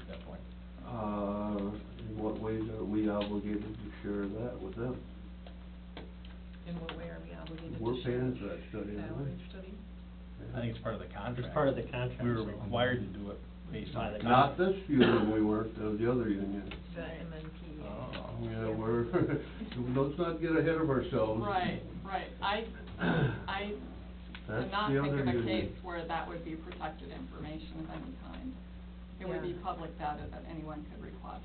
Uh, share of that with them. In what way are we obligated We're to share? paying for that study, aren't we? Salary study? I think it's part of the contract. It's part of the contract. We were required to do it based on By the the contract. Not this union we worked, of the other union. Uh, The Right. MNP. Oh. Yeah, we're, let's not get ahead of ourselves. Right, right, I, I That's did not the think other of a union. case where that would be protected information of any kind. It would be Yeah. public data that anyone could request.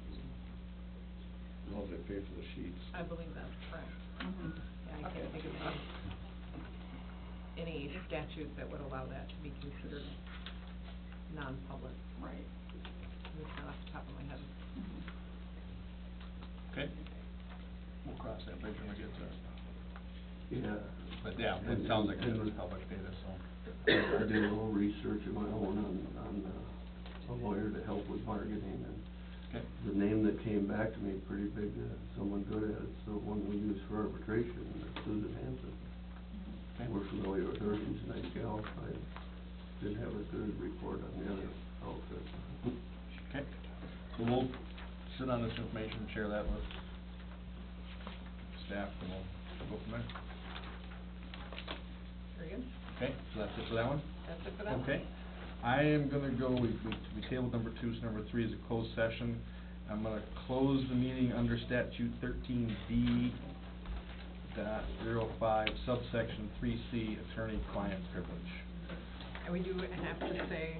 As long as they pay for the sheets. I believe that's correct. Mhm. Yeah, I can't think of any, any statute that would allow that to be considered non-public. Right. It's not off the top of my head. Mhm. Okay. We'll cross that bridge when we get there. Yeah. But yeah, it sounds like it was public data, so. I did a little research of my own on, on uh, a lawyer to help with bargaining, and Okay. the name that came back to me pretty big, uh, someone good at it, it's the one we use for arbitration, uh, Susan Hanson. Okay. We're familiar with her, she's a nice gal, I didn't have a good report on the other outfit. Okay. So we'll sit on this information and share that with staff, and we'll go from there. Very good. Okay, so that's it for that one? That's it for that one. Okay. I am gonna go, we, we, we tabled number two, so number three is a closed session. I'm gonna close the meeting under statute thirteen B dot zero five subsection three C, attorney-client privilege. And we do have to say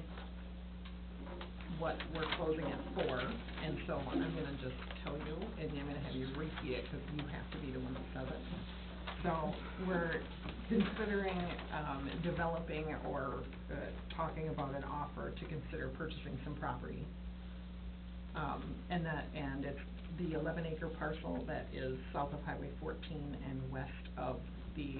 what we're closing it for, and so I'm gonna just tell you, and I'm gonna have you repeat it, because you have to be the one that says it. So, we're considering, um, developing or, uh, talking about an offer to consider purchasing some property. Um, and that, and it's the eleven acre parcel that is south of Highway fourteen and west of the